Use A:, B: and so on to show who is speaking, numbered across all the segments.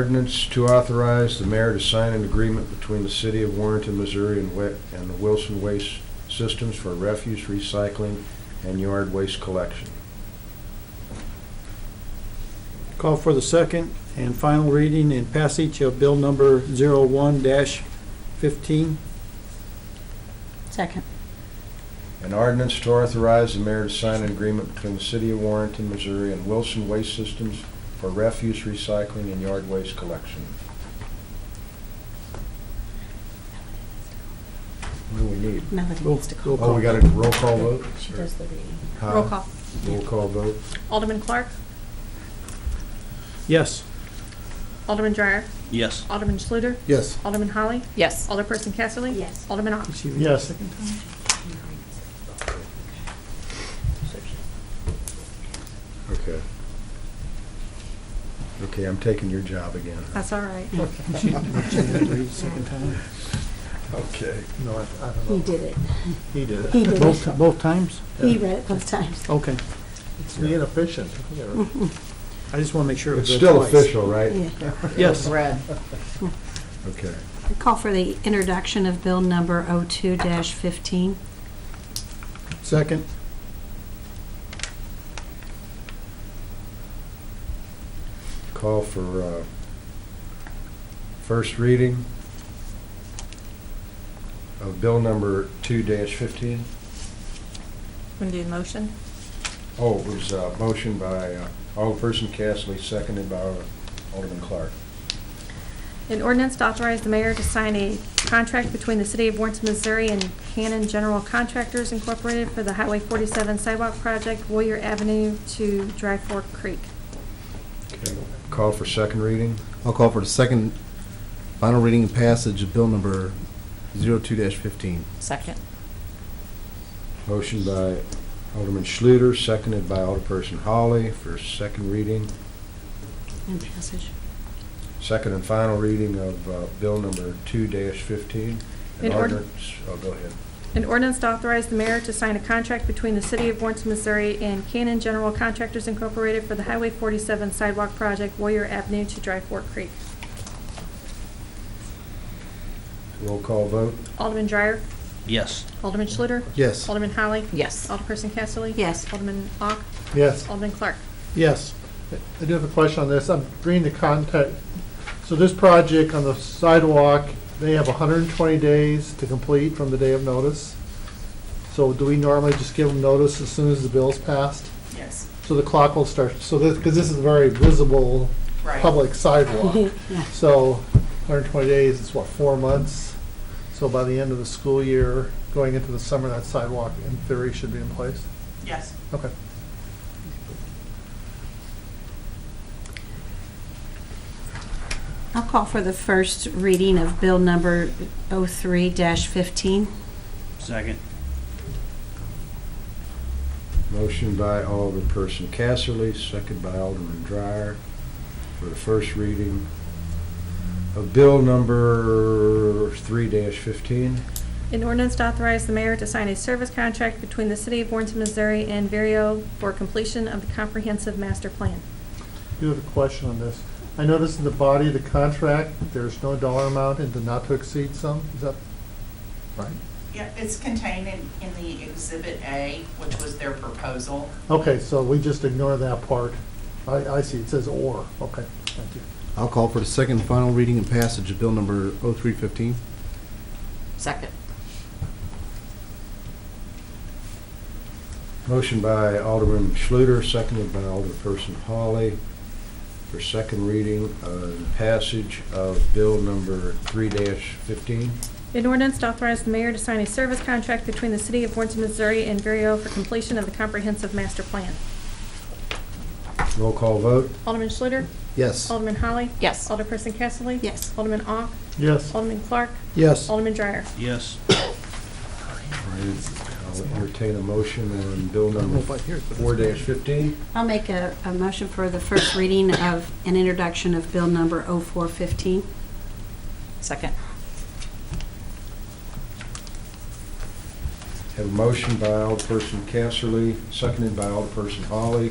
A: Ordinance to authorize the mayor to sign an agreement between the city of Warrenton, Missouri and Wi- and the Wilson Waste Systems for refuse recycling and yard waste collection.
B: Call for the second and final reading and passage of bill number 01-15.
C: Second.
A: An ordinance to authorize the mayor to sign an agreement between the city of Warrenton, Missouri and Wilson Waste Systems for refuse recycling and yard waste collection. What do we need?
C: Melody
B: Roll-
C: needs to
B: roll
C: call.
A: Oh, we got a roll call vote?
C: She does the reading.
A: Huh?
C: Roll call.
A: Roll call vote?
C: Alderman Clark,
B: Yes.
C: Alderman Dreyer,
D: Yes.
C: Alderman Schluter,
E: Yes.
C: Alderman Holly,
F: Yes.
C: Alderperson Casterly. Yes. Alderman Ock.
B: Yes.
A: Okay. Okay, I'm taking your job again.
C: That's all right.
B: Second time?
A: Okay.
E: No, I, I
C: He
E: don't know.
C: did it.
E: He did it.
C: He did it.
B: Both, both times?
C: He read it both times.
B: Okay.
E: It's the inefficient.
B: I just want to make sure. it
A: It's
B: was
A: still
B: twice.
A: official, right?
C: Yeah.
B: Yes.
F: Red.
A: Okay.
C: Call for the introduction of bill number 02-15.
B: Second?
A: Call for uh, first reading of bill number 2-15.
F: Want to do a motion?
A: Oh, it was a motion by uh, Alderperson Casterly, seconded by Alderman Clark.
G: An ordinance to authorize the mayor to sign a contract between the city of Warrenton, Missouri and Cannon General Contractors Incorporated for the Highway 47 sidewalk project, Warrior Avenue to Dry Fork Creek.
A: Call for second reading.
E: I'll call for the second final reading and passage of bill number 02-15.
F: Second.
A: Motion by Alderman Schluter, seconded by Alderperson Holly for second reading,
C: And passage.
A: second and final reading of uh, bill number 2-15. An
G: In ord-
A: ordinance, oh, go ahead.
G: An ordinance to authorize the mayor to sign a contract between the city of Warrenton, Missouri and Cannon General Contractors Incorporated for the Highway 47 sidewalk project, Warrior Avenue to Dry Fork Creek.
A: Roll call vote.
G: Alderman Dreyer,
D: Yes.
G: Alderman Schluter,
E: Yes.
G: Alderman Holly,
F: Yes.
C: Oh.
G: Alderperson Casterly.
C: Yes.
G: Alderman Ock,
H: Yes,
G: Alderman Clark.
B: Yes.
H: I do have a question on this. I'm reading the contact. So this project on the sidewalk, they have 120 days to complete from the day of notice. So do we normally just give them notice as soon as the bill's passed?
F: Yes.
H: So the clock will start, so this, because this is a very visible public sidewalk.
C: Yeah.
H: So 120 days is what, four months? So by the end of the school year, going into the summer, that sidewalk in theory should be in place?
F: Yes.
H: Okay.
C: I'll call for the first reading of bill number 03-15.
D: Second.
A: Motion by Alderperson Casterly, second by Alderman Dreyer for the first reading of bill number 3-15.
G: An ordinance to authorize the mayor to sign a service contract between the city of Warrenton, Missouri and Verio for completion of the comprehensive master plan.
H: do have a question on this. I noticed in the body of the contract, there's no dollar amount and the not to exceed sum. Is that right?
I: Yeah, it's contained in, in the Exhibit A, which was their proposal.
H: Okay, so we just ignore that part. I, I see, it says or. Okay, thank you.
E: I'll call for the second final reading and passage of bill number 0315.
F: Second.
A: Motion by Alderman Schluter, seconded by Alderperson Holly for second reading and passage of bill number 3-15.
G: An ordinance to authorize the mayor to sign a service contract between the city of Warrenton, Missouri and Verio for completion of the comprehensive master plan.
A: Roll call vote.
G: Alderman Schluter,
E: Yes.
G: Alderman Holly,
F: Yes.
C: Oh.
G: Alderperson Casterly.
C: Yes.
G: Alderman Ock,
H: Yes.
G: Alderman Clark,
B: Yes.
G: Alderman Dreyer.
D: Yes.
A: I'll entertain a motion on bill
B: I don't know if
A: number
B: I hear it, but it's-
A: 4-15.
C: I'll make a, a motion for the first reading of an introduction of bill number 0415.
F: Second.
A: Have a motion by Alderperson Casterly, seconded by Alderperson Holly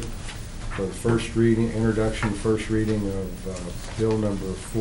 A: for the first reading, introduction, first reading of uh, bill number four.